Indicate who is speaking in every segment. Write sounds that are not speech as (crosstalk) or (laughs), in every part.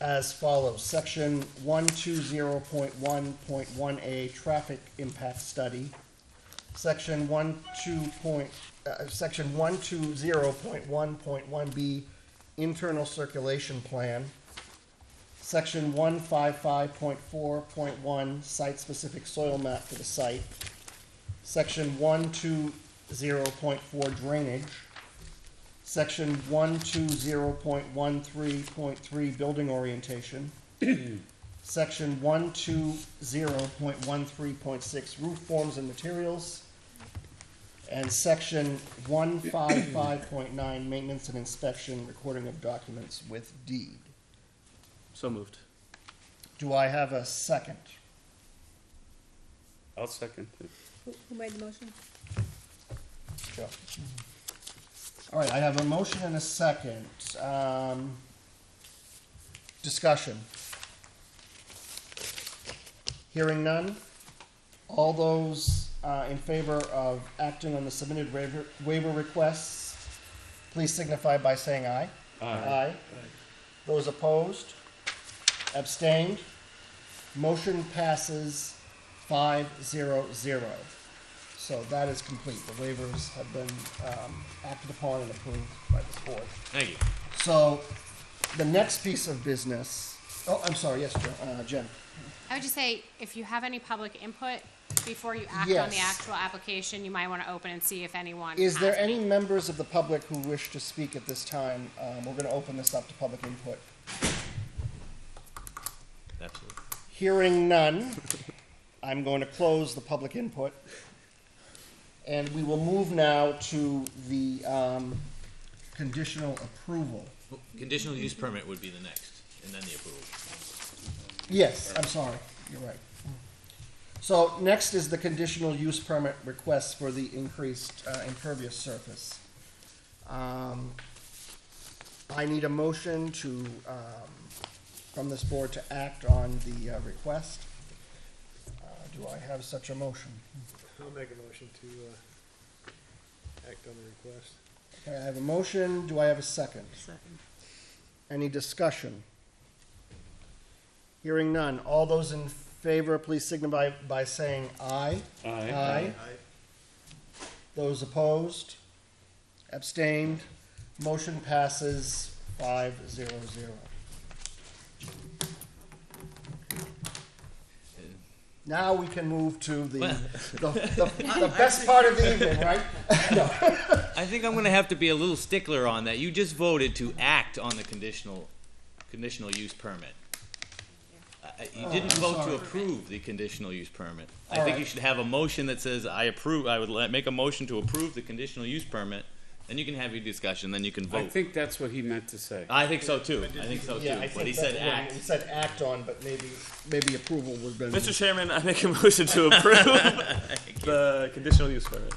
Speaker 1: as follows. Section one two zero point one point one A, traffic impact study. Section one two point, uh, section one two zero point one point one B, internal circulation plan. Section one five five point four point one, site-specific soil map for the site. Section one two zero point four drainage. Section one two zero point one three point three, building orientation. Section one two zero point one three point six, roof forms and materials. And section one five five point nine, maintenance and inspection, recording of documents with deed.
Speaker 2: So moved.
Speaker 1: Do I have a second?
Speaker 2: I'll second.
Speaker 3: Who who made the motion?
Speaker 1: Sure. All right, I have a motion and a second. Um, Discussion. Hearing none. All those uh, in favor of acting on the submitted waiver, waiver requests, please signify by saying aye. Aye. Those opposed? Abstained? Motion passes five zero zero. So that is complete. The waivers have been um, acted upon and approved by this board.
Speaker 2: Thank you.
Speaker 1: So the next piece of business, oh, I'm sorry, yes, Jen- uh, Jen.
Speaker 4: I would just say, if you have any public input before you act on the
Speaker 1: Yes.
Speaker 4: actual application, you might want to open and see if anyone.
Speaker 1: Is there
Speaker 4: has
Speaker 1: any members of the public who wish to speak at this time? Um, We're going to open this up to public input.
Speaker 2: Absolutely.
Speaker 1: Hearing none, I'm going to close the public input. And we will move now to the um, conditional approval.
Speaker 5: Conditional use permit would be the next, and then the approval.
Speaker 1: Yes, I'm sorry, you're right. So next is the conditional use permit request for the increased uh, impervious surface. Um, I need a motion to, um, from this board to act on the uh, request. Uh, Do I have such a motion?
Speaker 6: I'll make a motion to, uh, act on the request.
Speaker 1: Okay, I have a motion, do I have a second?
Speaker 3: Second.
Speaker 1: Any discussion? Hearing none, all those in favor, please signify by saying aye. Aye. Those opposed? Abstained? Motion passes five zero zero. Now we can move to the, the, the, the best part of the evening, right?
Speaker 5: I think I'm gonna have to be a little stickler on that. You just voted to act on the conditional, conditional use permit. Uh, uh, You didn't
Speaker 1: Oh, I'm
Speaker 5: vote
Speaker 1: sorry.
Speaker 5: to approve the conditional use permit. I
Speaker 1: All
Speaker 5: think
Speaker 1: right.
Speaker 5: you should have a motion that says, I approve, I would let- make a motion to approve the conditional use permit, then you can have your discussion, then you can
Speaker 2: I
Speaker 5: vote.
Speaker 2: think that's what he meant to say.
Speaker 5: I think so too. I think so
Speaker 1: Yeah,
Speaker 5: too,
Speaker 1: I
Speaker 5: but
Speaker 1: think
Speaker 5: he said
Speaker 1: that's what
Speaker 5: (laughs) act.
Speaker 1: He (laughs) said act on, but maybe, maybe approval would have been.
Speaker 2: Mr. Chairman, I make a motion
Speaker 1: (laughs)
Speaker 2: to approve the conditional use permit.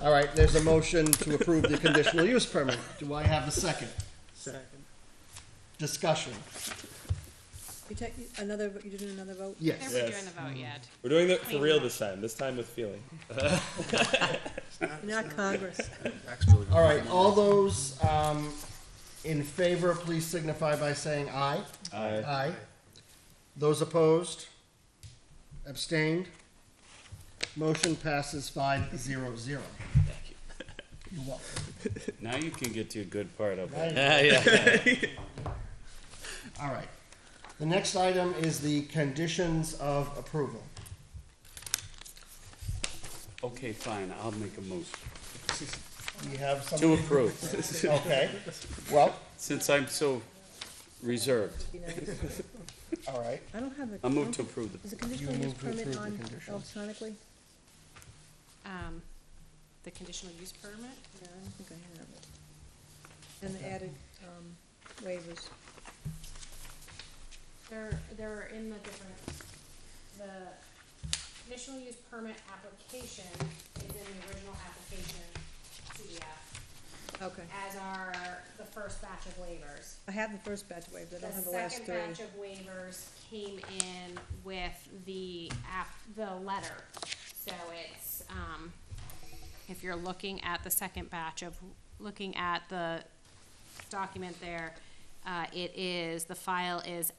Speaker 1: All right, there's a motion to approve the conditional use permit. Do I have a second?
Speaker 6: Second.
Speaker 1: Discussion?
Speaker 3: You take another, vo- you did another vote?
Speaker 4: I
Speaker 1: Yes.
Speaker 4: think we're doing the
Speaker 1: Hmm.
Speaker 4: vote yet.
Speaker 7: We're doing it for
Speaker 4: Clean
Speaker 7: real
Speaker 4: up.
Speaker 7: this time. This time with feeling.
Speaker 3: Not (laughs) Congress.
Speaker 1: All right, all those um, in favor, please signify by saying aye.
Speaker 7: Aye.
Speaker 1: Aye. Those opposed? Abstained? Motion passes five zero zero. Thank you.
Speaker 2: Now you can get to your good part of it.
Speaker 1: All right. The next item is the conditions of approval.
Speaker 2: Okay, fine, I'll make a motion
Speaker 1: We have some.
Speaker 2: to approve,
Speaker 1: Okay, well,
Speaker 2: since I'm so reserved.
Speaker 1: all right.
Speaker 3: I don't have a.
Speaker 2: I move to approve the,
Speaker 3: Is the conditional use
Speaker 1: move to approve
Speaker 3: permit
Speaker 1: the
Speaker 3: on
Speaker 1: conditions.
Speaker 3: electronically?
Speaker 4: Um, the conditional use permit?
Speaker 3: Yeah, I don't think I have it. And the added, um, waivers.
Speaker 4: They're, they're in the different, the conditional use permit application is in the original application CDF,
Speaker 3: Okay.
Speaker 4: as are the first batch of waivers.
Speaker 3: I have the first batch of waivers, I don't have the
Speaker 4: The
Speaker 3: last
Speaker 4: second
Speaker 3: three.
Speaker 4: batch of waivers came in with the app, the letter. So it's, um, if you're looking at the second batch of, looking at the document there, uh, it is, the file is